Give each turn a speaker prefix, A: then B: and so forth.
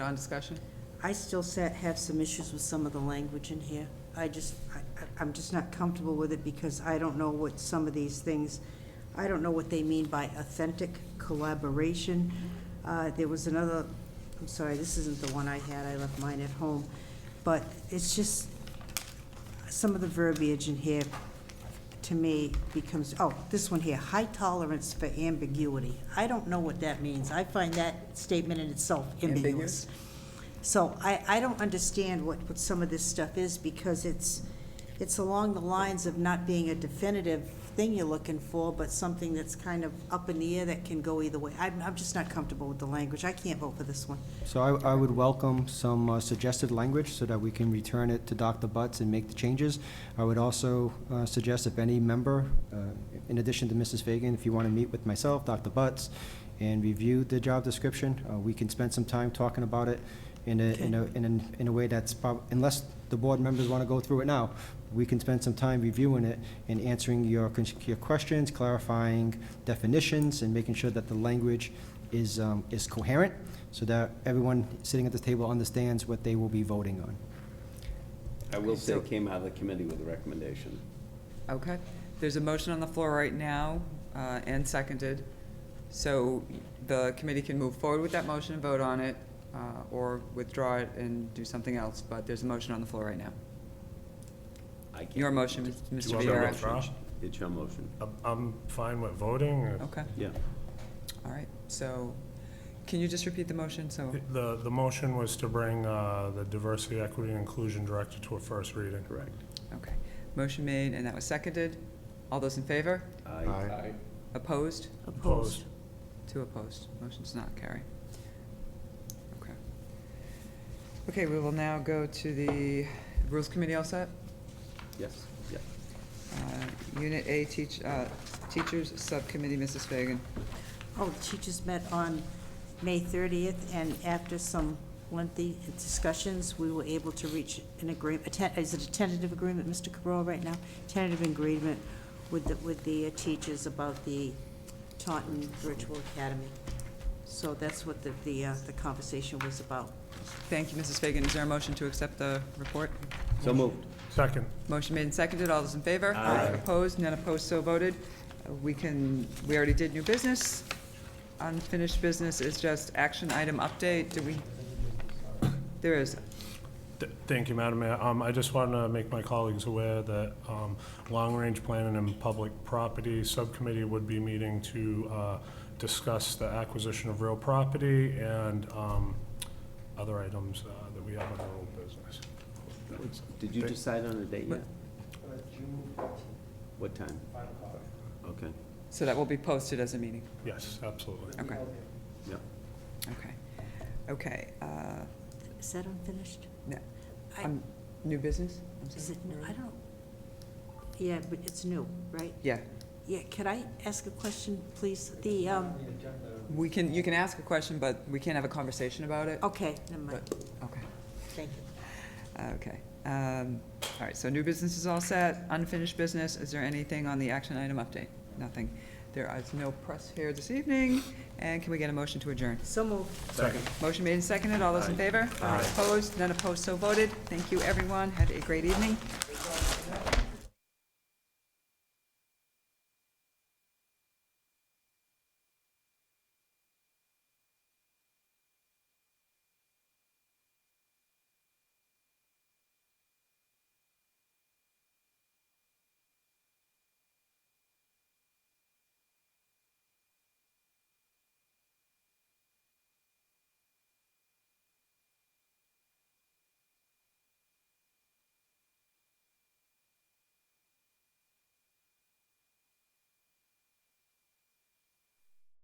A: On discussion?
B: I still sa- have some issues with some of the language in here. I just, I- I- I'm just not comfortable with it because I don't know what some of these things, I don't know what they mean by authentic collaboration. Uh, There was another, I'm sorry, this isn't the one I had, I left mine at home. But it's just, some of the verbiage in here, to me, becomes, oh, this one here, high tolerance for ambiguity. I don't know what that means. I find that statement in itself ambiguous.
A: Ambiguous?
B: So I, I don't understand what, what some of this stuff is, because it's, it's along the lines of not being a definitive thing you're looking for, but something that's kind of up in the air that can go either way. I'm, I'm just not comfortable with the language. I can't vote for this one.
C: So I, I would welcome some uh, suggested language so that we can return it to Dr. Butts and make the changes. I would also uh, suggest if any member, uh, in addition to Mrs. Fagan, if you want to meet with myself, Dr. Butts, and review the job description, uh, we can spend some time talking about it in a, in a, in a, in a way that's prob, unless the board members want to go through it now, we can spend some time reviewing it and answering your, con- your questions, clarifying definitions, and making sure that the language is, um, is coherent, so that everyone sitting at this table understands what they will be voting on.
D: I will say
A: So-
D: it came out of the committee with a recommendation.
A: Okay. There's a motion on the floor right now uh, and seconded. So the committee can move forward with that motion and vote on it uh, or withdraw it and do something else, but there's a motion on the floor right now.
D: I can't-
A: Your motion,
D: It's
A: Mr.
D: your
E: want me to
A: Viera.
E: withdraw?
D: motion. It's your motion,
E: I'm- I'm fine with voting. or-
A: Okay,
D: yeah.
A: all right. So can you just repeat the motion? So,
E: The, the motion was to bring uh, the Diversity, Equity, and Inclusion Director to a first reading.
D: Correct.
A: okay. Motion made and that was seconded. All those in favor?
E: Aye.
A: Opposed?
E: Opposed.
A: Two opposed. Motion does not carry. Okay. Okay, we will now go to the Rules Committee all set?
D: Yes, yeah.
A: Uh, Unit A teach, uh, Teachers Subcommittee, Mrs. Fagan.
B: Oh, the teachers met on May 30th, and after some lengthy discussions, we were able to reach an agreement, is it a tentative agreement, Mr. Cabral, right now? Tentative agreement with the, with the uh, teachers about the Taunton Virtual Academy. So that's what the, the, uh, the conversation was about.
A: Thank you, Mrs. Fagan. Is there a motion to accept the report?
D: So moved.
E: Second.
A: Motion made and seconded. All those in favor?
D: Aye.
A: Opposed? None opposed, so voted. Uh, We can, we already did new business. Unfinished business is just action item update. Do we? There is.
E: Th- Thank you, Madam Mayor. Um, I just want to make my colleagues aware that um, Long Range Planning and Public Property Subcommittee would be meeting to uh, discuss the acquisition of real property and um, other items uh, that we have on our old business.
D: Did you decide on a date yet?
A: What-
D: What time? Okay,
A: So that will be posted as a meeting.
E: Yes, absolutely.
A: Okay,
D: yeah.
A: okay. Okay, uh,
B: Is that unfinished?
A: no,
B: I-
A: um, new business? I'm sorry.
B: Is it, I don't, yeah, but it's new, right?
A: Yeah,
B: Yeah, could I ask a question, please? The, um,
A: we can, you can ask a question, but we can't have a conversation about it.
B: okay, never mind,
A: But- Okay, Uh,
B: thank you.
A: okay. Um, All right, so new business is all set, unfinished business, is there anything on the action item update? Nothing. There is no press here this evening, and can we get a motion to adjourn?
B: So moved.
E: Second.
A: Motion made and seconded, all those in favor? Aye. Opposed, none opposed, so voted. Thank you, everyone, have a great evening.